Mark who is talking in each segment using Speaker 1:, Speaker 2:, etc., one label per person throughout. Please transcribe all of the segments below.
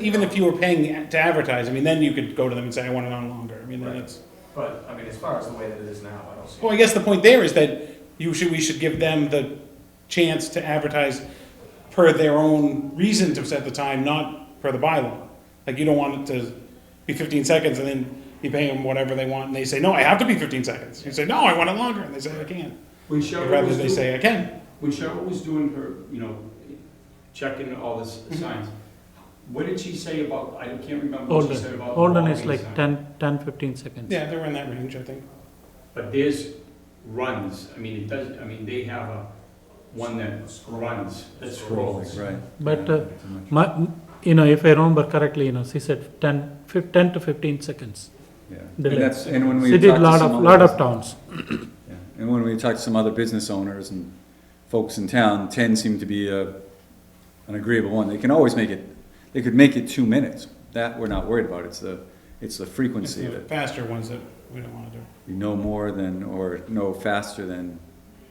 Speaker 1: even if you were paying to advertise, I mean, then you could go to them and say, I want it on longer. I mean, then
Speaker 2: Right.
Speaker 1: it's,
Speaker 2: But, I mean, as far as the way that it is now, I don't see.
Speaker 1: well, I guess the point there is that you should, we should give them the chance to advertise per their own reason to set the time, not per the bylaw. Like, you don't want it to be fifteen seconds and then you pay them whatever they want and they say, no, I have to be fifteen seconds. You say, no, I want it longer, and they say, I can't.
Speaker 3: When Cheryl
Speaker 1: Rather,
Speaker 3: was
Speaker 1: they
Speaker 3: doing,
Speaker 1: say, I can.
Speaker 3: when Cheryl was doing her, you know, checking all the s- signs, what did she say about, I can't remember what she
Speaker 4: Holden,
Speaker 3: said about. the
Speaker 4: Holden is
Speaker 3: walking
Speaker 4: like
Speaker 3: sign.
Speaker 4: 10, 10, 15 seconds.
Speaker 1: Yeah, they were in that range, I think.
Speaker 3: But there's runs, I mean, it does, I mean, they have a, one that runs, that scrolls.
Speaker 5: Right.
Speaker 4: But, uh, My, you know, if I remember correctly, you know, she said 10, fif- 10 to 15 seconds.
Speaker 5: Yeah.
Speaker 4: delay.
Speaker 5: And that's, and when we.
Speaker 4: She did
Speaker 5: talked to
Speaker 4: lot
Speaker 5: some
Speaker 4: of,
Speaker 5: other
Speaker 4: lot
Speaker 5: bus-
Speaker 4: of towns.
Speaker 5: yeah. And when we talked to some other business owners and folks in town, ten seemed to be a, an agreeable one. They can always make it, they could make it two minutes. That we're not worried about. It's the, it's the
Speaker 1: It's
Speaker 5: frequency
Speaker 1: the
Speaker 5: that
Speaker 1: faster ones that we don't wanna do.
Speaker 5: we no more than, or no faster than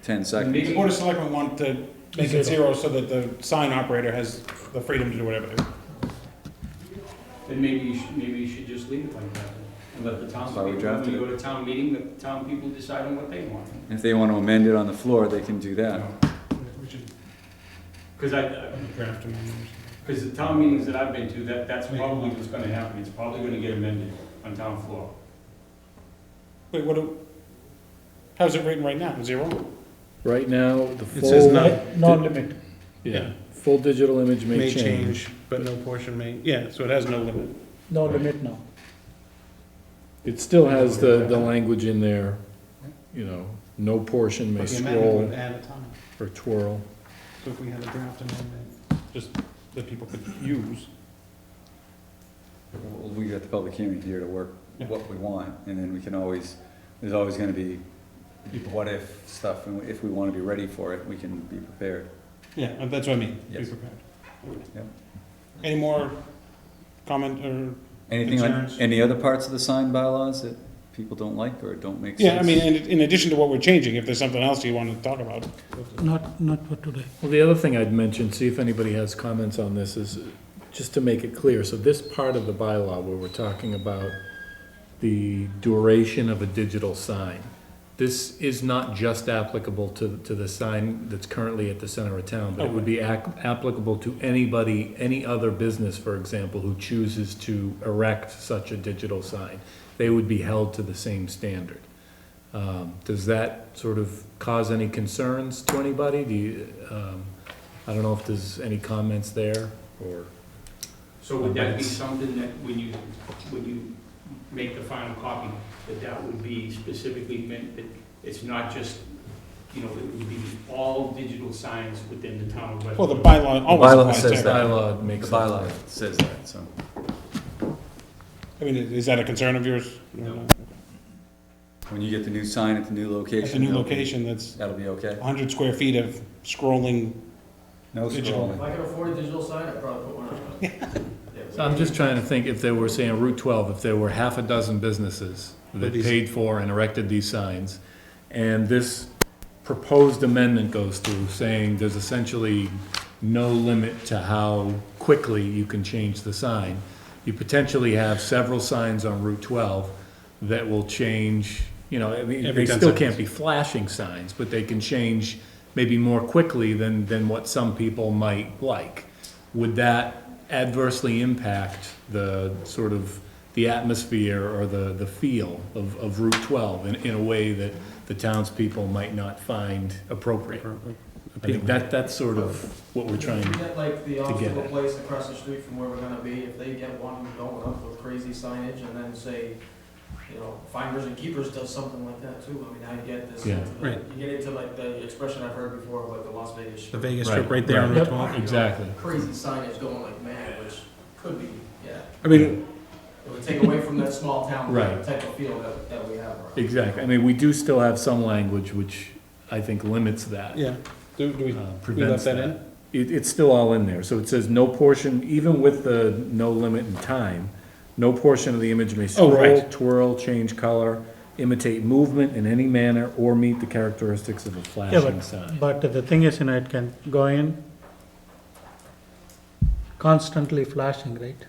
Speaker 5: ten
Speaker 3: Maybe-
Speaker 5: seconds.
Speaker 1: The Board of Selectmen want to make it zero
Speaker 4: Zero.
Speaker 1: so that the sign operator has the freedom to do whatever they want.
Speaker 3: Then maybe you should, maybe you should just leave it like that, and let the town,
Speaker 5: That's why
Speaker 3: people,
Speaker 5: we
Speaker 3: when
Speaker 5: drafted
Speaker 3: you
Speaker 5: it.
Speaker 3: go to town meeting, let the town people decide on what they want. you
Speaker 5: If they want to amend it on the floor, they can do that.
Speaker 3: know?
Speaker 1: We should
Speaker 3: Cause I- I,
Speaker 1: draft them. in or something.
Speaker 3: Because the town meetings that I've been to, that, that's probably what's gonna happen, it's probably gonna get amended on town floor.
Speaker 1: Wait, what do, how's it written right now? Zero?
Speaker 6: Right now, the
Speaker 1: It says
Speaker 6: full,
Speaker 1: none.
Speaker 4: No limit.
Speaker 6: yeah, full digital image may change.
Speaker 1: but no portion may, yeah, so it has no limit.
Speaker 4: No limit now.
Speaker 6: It still has the, the language in there, you know, no portion may
Speaker 1: But the amendment would
Speaker 6: scroll
Speaker 1: add a time.
Speaker 6: or twirl.
Speaker 1: So if we had a draft amendment, just that people could use.
Speaker 5: Well, We got the public hearing here to work
Speaker 1: Yeah.
Speaker 5: what we want, and then we can always, there's always gonna be what if stuff, and if we wanna be ready for it, we can be prepared.
Speaker 1: Yeah, uh, that's what I mean. Be
Speaker 5: Yes.
Speaker 1: prepared.
Speaker 5: Yep.
Speaker 1: Any more comment or,
Speaker 5: Anything on,
Speaker 1: Concerns?
Speaker 5: any other parts of the sign bylaws that people don't like or don't make sense?
Speaker 1: yeah, I mean, in, in addition to what we're changing, if there's something else you wanna talk about.
Speaker 4: Not, not for today.
Speaker 6: Well, the other thing I'd mention, see if anybody has comments on this, is just to make it clear, so this part of the bylaw where we're talking about the duration of a digital sign, this is not just applicable to, to the sign that's currently at the center of town, but it would be ac- applicable to anybody, any other business, for example, who chooses to erect such a digital sign. They would be held to the same standard. Um, Does that sort of cause any concerns to anybody? Do you, um, I don't know if there's any comments there, or?
Speaker 3: So would that be something that when you, when you make the final copy, that that would be specifically meant that it's not just, you know, it would be all digital signs within the town of West.
Speaker 1: Well, the bylaw always
Speaker 5: bylaw
Speaker 1: applies to
Speaker 5: says
Speaker 1: everything.
Speaker 5: that.
Speaker 6: Bylaw
Speaker 5: The
Speaker 6: makes.
Speaker 5: bylaw says that, so.
Speaker 1: I mean, is that a concern of yours?
Speaker 3: No.
Speaker 5: When you get the new sign at the new location.
Speaker 1: It's a new
Speaker 5: that'll be-
Speaker 1: location that's
Speaker 5: That'll be okay.
Speaker 1: hundred square feet of scrolling,
Speaker 5: No
Speaker 1: Digital.
Speaker 5: scrolling.
Speaker 2: I could afford a digital sign, I'd probably put one
Speaker 6: So I'm just trying to think, if they were saying Route twelve, if there were half a dozen businesses that
Speaker 1: These-
Speaker 6: paid for and erected these signs, and this proposed amendment goes through, saying there's essentially no limit to how quickly you can change the sign, you potentially have several signs on Route twelve that will change, you know, I mean,
Speaker 1: Every
Speaker 6: they
Speaker 1: 10
Speaker 6: still can't be flashing signs, but they can change maybe more quickly than, than what some people might like. Would that adversely impact the sort of, the atmosphere or the, the feel of, of Route twelve in, in a way that the townspeople might not find appropriate? I think that, that's sort of what we're trying
Speaker 7: If
Speaker 6: to
Speaker 7: we get like the
Speaker 6: get
Speaker 7: obstacle
Speaker 6: it.
Speaker 7: place across the street from where we're gonna be, if they get one going up with crazy signage and then say, you know, finders and keepers does something like that too, I mean, I get this.
Speaker 6: Yeah.
Speaker 7: into the-
Speaker 1: Right.
Speaker 7: You get into like the expression I've heard before, of, like the Las Vegas
Speaker 1: the
Speaker 7: Strip.
Speaker 1: Vegas
Speaker 6: Right,
Speaker 1: strip right there on Route
Speaker 6: right.
Speaker 1: twelve.
Speaker 6: Exactly.
Speaker 7: Crazy signage going like mad, which could be, yeah,
Speaker 1: I mean,
Speaker 7: it would take away from that small town
Speaker 6: Right.
Speaker 7: type of feel that, that we have around.
Speaker 6: Exactly. I mean, we do still have some language which I think limits that.
Speaker 1: yeah, do, do
Speaker 6: uh,
Speaker 1: we, we left
Speaker 6: prevents
Speaker 1: that in?
Speaker 6: It, it's still all in there. So it says no portion, even with the no limit in time, no portion of the image may
Speaker 1: Oh, right.
Speaker 6: scroll, twirl, change color, imitate movement in any manner, or meet the characteristics of a
Speaker 4: Yeah,
Speaker 6: flashing sign.
Speaker 4: but, but the thing is, you know, it can go in constantly flashing, right?